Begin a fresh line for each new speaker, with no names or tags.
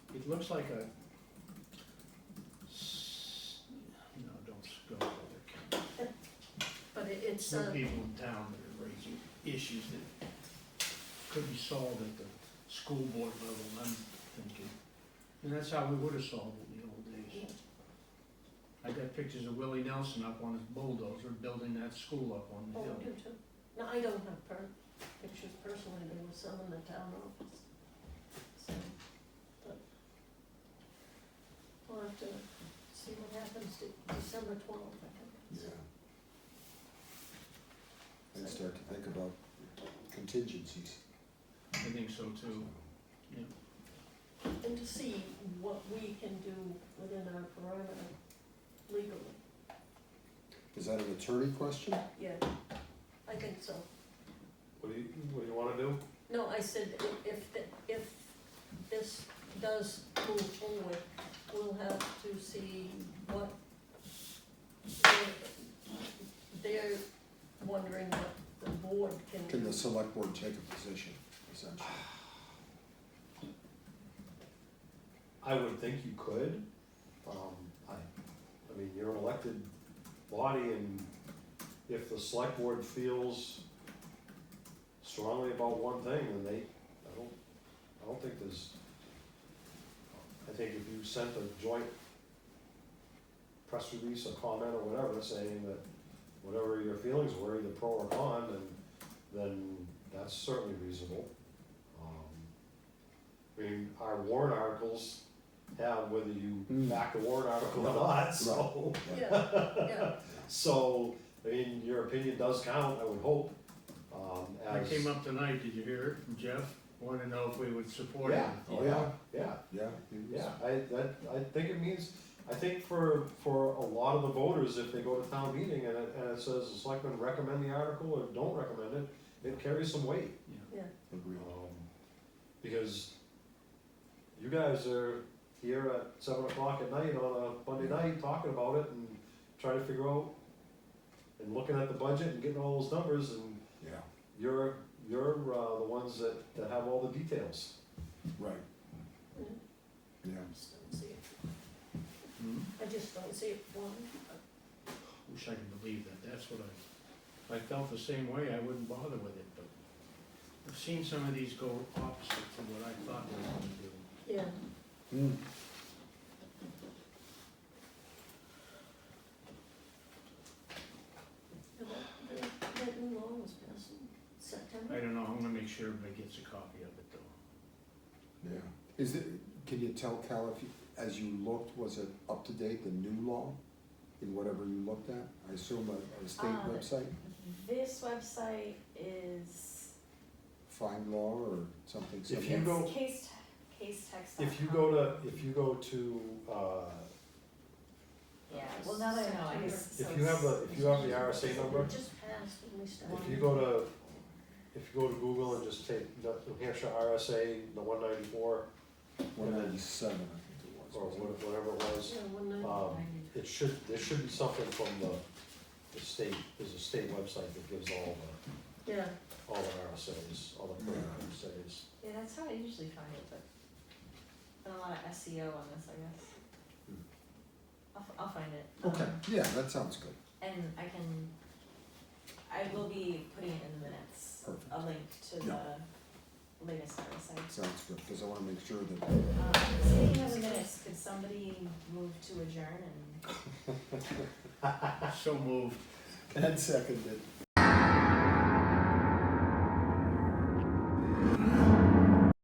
looks like a, s- no, don't s- go there.
But it, it's,
Some
uh,
people in town that are raising issues that could be solved at the school board level, I'm thinking. And that's how we would have solved it in the old days. I got pictures of Willie Nelson up on his bulldozer building that school up on the
oh,
hill.
I do too. No, I don't have per, pictures personally, there were some in the town office, so, but. We'll have to see what happens to December twelfth, I think.
Yeah. And start to think about contingencies.
I think so too.
And to see what we can do within our perimeter legally,
Is that an attorney question?
yeah, I think so.
What do you, what do you wanna do?
No, I said i- if, th- if this does move forward, we'll have to see what they're- they're wondering what the board can
Can the
do.
select board take a position, essentially?
I would think you could, um, I, I mean, you're an elected body and if the select board feels strongly about one thing, then they, I don't, I don't think there's, I think if you sent a joint press release, a comment or whatever, saying that whatever your feelings were, either pro or con, then, then that's certainly reasonable. Um, I mean, our warrant articles have whether you
Hmm.
back the warrant article or not, so.
Yeah, yeah,
So, I mean, your opinion does count, I would hope, um,
I
as.
came up tonight, did you hear it, from Jeff? Wanted to know if we would support it.
Yeah, oh yeah, yeah,
Yeah? you-
yeah, I, that, I think it means, I think for, for a lot of the voters, if they go to town meeting and it, and it says the selectmen recommend the article or don't recommend it, it carries some weight.
yeah,
Agreed.
Um, Because you guys are here at seven o'clock at night on a Monday night talking about it and trying to figure out and looking at the budget and getting all those numbers and
Yeah,
you're, you're, uh, the ones that, that have all the details.
right,
yeah.
yeah.
I just don't see it.
Hmm?
I just don't see it, one,
Wish I could believe that, that's what I, if I felt the same way, I wouldn't bother with it, but I've seen some of these go opposite to what I thought they were gonna do.
yeah,
Hmm.
and that, that- that new law was passed in September.
I don't know, I'm gonna make sure everybody gets a copy of it though.
Yeah. Is it, can you tell Cal if, you- as you looked, was it up to date, the new law? In whatever you looked at? I assume a, a state
Uh,
Um,
website,
This website is
find law or something
If you
similar?
go-
it's case, case text.
If you go to, if you go to, uh,
Yeah, well, now that I know, I guess. so
if you have
it's-
the, if you have the RSA number,
It just passed when we started.
if you go to, if you go to Google and just take the New Hampshire RSA, the one ninety-four,
One ninety-seven, I think it was.
or
wasn't it?
what- whatever it was,
Yeah, one night.
Um, it should, there should be something from the, the state, there's a state website that gives all the,
yeah,
all the RSAs, all the current RSAs.
Yeah, that's how I usually find it, but been a lot of SEO on this, I guess.
Hmm.
I'll, f- I'll find it.
Okay,
um,
yeah, that sounds good,
And I can, I will be putting it in the minutes,
Perfect.
a link to the
Yeah.
latest website.
sounds good, because I wanna make sure that
Um, speaking of the minutes, could somebody move to adjourn and
So moved.
Ed seconded.